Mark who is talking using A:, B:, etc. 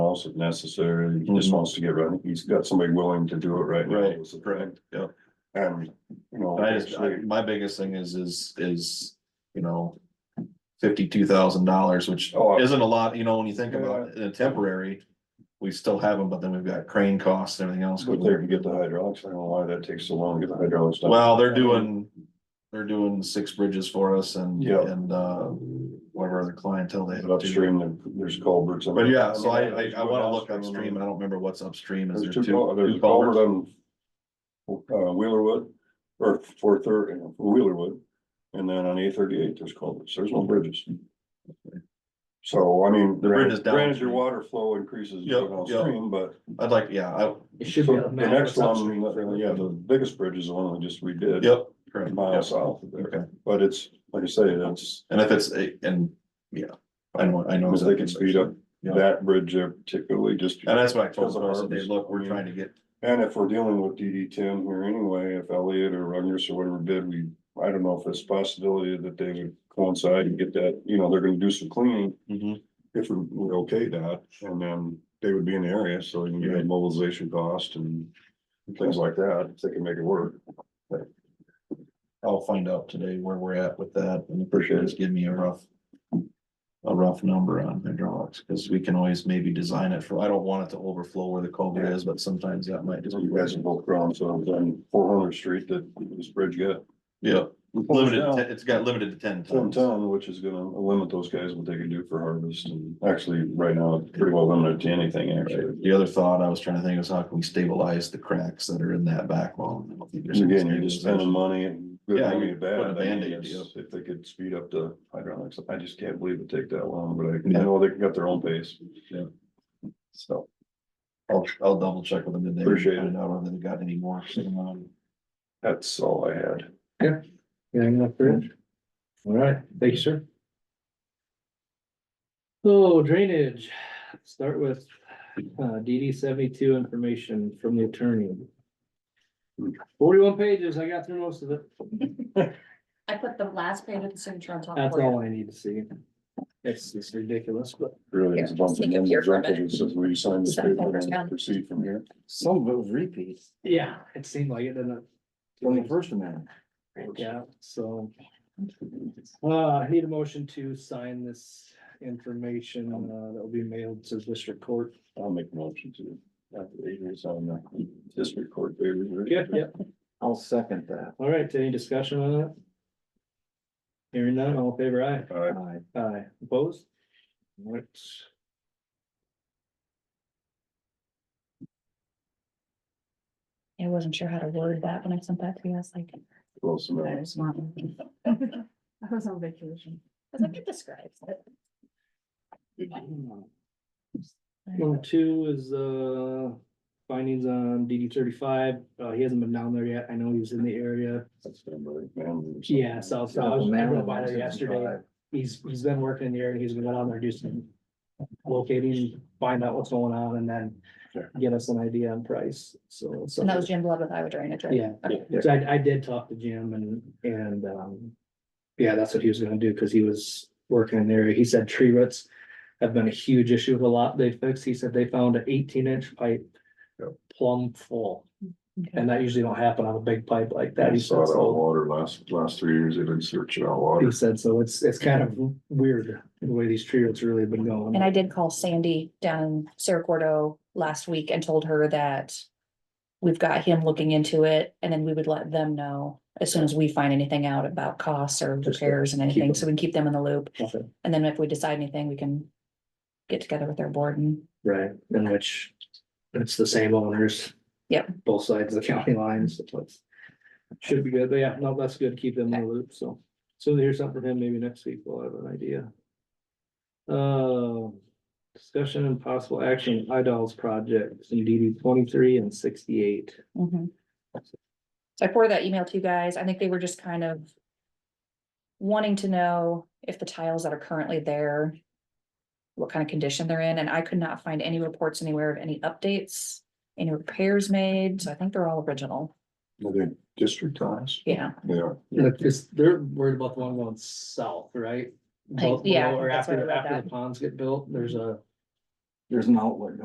A: else if necessary. He just
B: Mhm.
A: wants to get running. He's got somebody willing to do it right now.
B: Right.
A: is the thing.
B: Correct, yeah.
A: And, you know,
B: I just, I-
A: actually,
B: my biggest thing is, is, is, you know. Fifty-two thousand dollars, which
A: Oh, I-
B: isn't a lot, you know, when you think about it, in a temporary. We still have them, but then we've got crane costs and everything else.
A: but there to get the hydraulics. I don't know why that takes so long to get the hydraulics done.
B: Well, they're doing, they're doing six bridges for us and,
A: Yeah.
B: and, uh, whatever other clientele they have.
A: But
B: too.
A: Upstream, there- there's culverts.
B: But yeah, so I, I, I wanna look upstream, I don't remember what's upstream, is there
A: There's
B: two?
A: two, cul- there's
B: two
A: a
B: culverts?
A: culvert on. Uh, Wheelerwood, or four thirty, Wheelerwood, and then on A thirty-eight, there's culverts, there's no bridges. So, I mean,
B: The bridge is
A: granted, granted your
B: downstream.
A: water flow increases
B: Yep, yep.
A: downstream, but.
B: I'd like, yeah, I,
A: so
C: It should be.
A: The
C: on the map.
A: next
C: It's upstream.
A: one, yeah, the biggest bridge is the one we just redid.
B: yep, correct,
A: Mile
B: yep,
A: south of there,
B: okay,
A: but it's, like I say, that's,
B: and if it's, a and, yeah, I know, I know.
A: if they
B: exactly
A: can
B: what you're
A: speed up
B: saying. Yeah.
A: that bridge there particularly, just.
B: And that's what I told them, I
A: Because
B: said,
A: of
B: hey,
A: ours.
B: look, we're trying to get,
A: And if we're dealing with DD ten here anyway, if Elliot or Ruggers or whatever bid, we, I don't know if it's possibility that they would coincide and get that, you know, they're gonna do some cleaning. If we we okay that, and then they would be in the area, so you can get a mobilization cost and things like that, if they can make it work.
B: I'll find out today where we're at with that, and
A: Appreciate it.
B: just give me a rough. A rough number on hydraulics, because we can always maybe design it for, I don't want it to overflow where the culvert
A: Yeah.
B: is, but sometimes that might just. be
A: You guys are both grown, so it was on four hundred street that this bridge got.
B: Yeah, limited,
A: Down.
B: to- it's got limited to ten
A: Ten
B: tons.
A: ton, which is gonna limit those guys what they can do for harvest and actually right now it's pretty well limited to anything actually.
B: The other thought I was trying to think is how can we stabilize the cracks that are in that back wall? I don't think there's any
A: Again, you're just spending
B: stabilization.
A: money and. good
B: Yeah,
A: money
B: you're
A: bad.
B: putting a
A: I mean,
B: Band-Aid,
A: it's-
B: yeah.
A: If they could speed up the hydraulics, I just can't believe it take that long, but I-
B: Yeah.
A: I know they got their own pace.
B: Yeah.
A: So,
B: I'll, I'll double check with them today. and
A: Appreciate
B: find out whether they got any more sitting on.
A: that's all I had.
C: Anything else, Rich? All right, thank you, sir. So drainage, start with uh DD seventy-two information from the attorney. Forty-one pages, I got through most of it.
D: I put the last page of the signature on top.
C: That's
D: for you.
C: all I need to see. It's it's ridiculous, but
A: Really,
D: Here,
A: it's bumping
D: sneak
A: in
D: up
A: the
D: here for a
A: record, it
D: minute.
A: says we sign this
D: Step
A: paper
D: over down.
A: and proceed from here.
E: Some of it was repeats,
C: yeah, it seemed like it didn't.
E: from the first amendment.
C: it? Yeah, so. Uh, I need a motion to sign this information uh that will be mailed to district court.
A: I'll make a motion to, after eight years on the district court papers. right?
C: Yeah.
E: I'll second that.
C: All right, any discussion on that? Hearing none, all in favor aye.
A: All right,
E: Aye.
C: Aye, opposed? What?
D: I wasn't sure how to word that when I sent that to you. I was like,
A: close
D: that
A: enough.
D: is not. I was on vacation. I was like, it describes it.
C: Number two is uh findings on DD thirty-five. Uh, he hasn't been down there yet. I know he was in the area.
A: That's been by man.
C: Yeah, so so I was I drove by there
E: Amendment
C: yesterday.
E: 65.
C: He's he's been working in the area. He's been going down there, do some locating, find out what's going on and then
A: Sure.
C: get us an idea on price. So. so-
D: And that was Jim Blood with Iowa Drainage. right?
C: Yeah,
E: Yeah.
C: so I, I did talk to Jim and, and, um, yeah, that's what he was gonna do, cause he was working in the area. He said tree roots have been a huge issue with a lot they fixed. He said they found an eighteen inch pipe
A: Yep.
C: plumb full,
D: Okay.
C: and that usually don't happen on a big pipe like that.
A: I
C: He
A: saw
C: said,
A: it all
C: so,
A: water last, last three years, they've been searching out
C: he
A: water.
C: said, so it's, it's kind of
A: Mm-hmm.
C: weird the way these tree roots really have been going.
D: And I did call Sandy down in Cerro Gordo last week and told her that we've got him looking into it and then we would let them know as soon as we find anything out about costs or
C: Just to
D: repairs and
C: keep
D: anything,
C: them-
D: so we can keep them in the loop.
C: Okay.
D: And then if we decide anything, we can get together with our board and
C: Right, in which it's the same owners.
D: Yep.
C: Both sides of the county lines, so it's. Should be good, but yeah, no, that's good, keep them in the loop, so, so here's something from him, maybe next week we'll have an idea. Uh, discussion and possible action, Idolls project, DD twenty-three and sixty-eight.
D: Mhm. So I forwarded that email to you guys. I think they were just kind of wanting to know if the tiles that are currently there, what kind of condition they're in, and I could not find any reports anywhere of any updates, any repairs made, so I think they're all original.
A: Are they district ties?
D: Yeah,
A: Yeah.
C: Look, this, they're worried about the one going south, right?
D: I-
C: Both
D: yeah, I
C: below Or
D: think that's what I
C: after,
D: read
C: after the
D: that.
C: ponds get built, there's a.
E: There's an outlet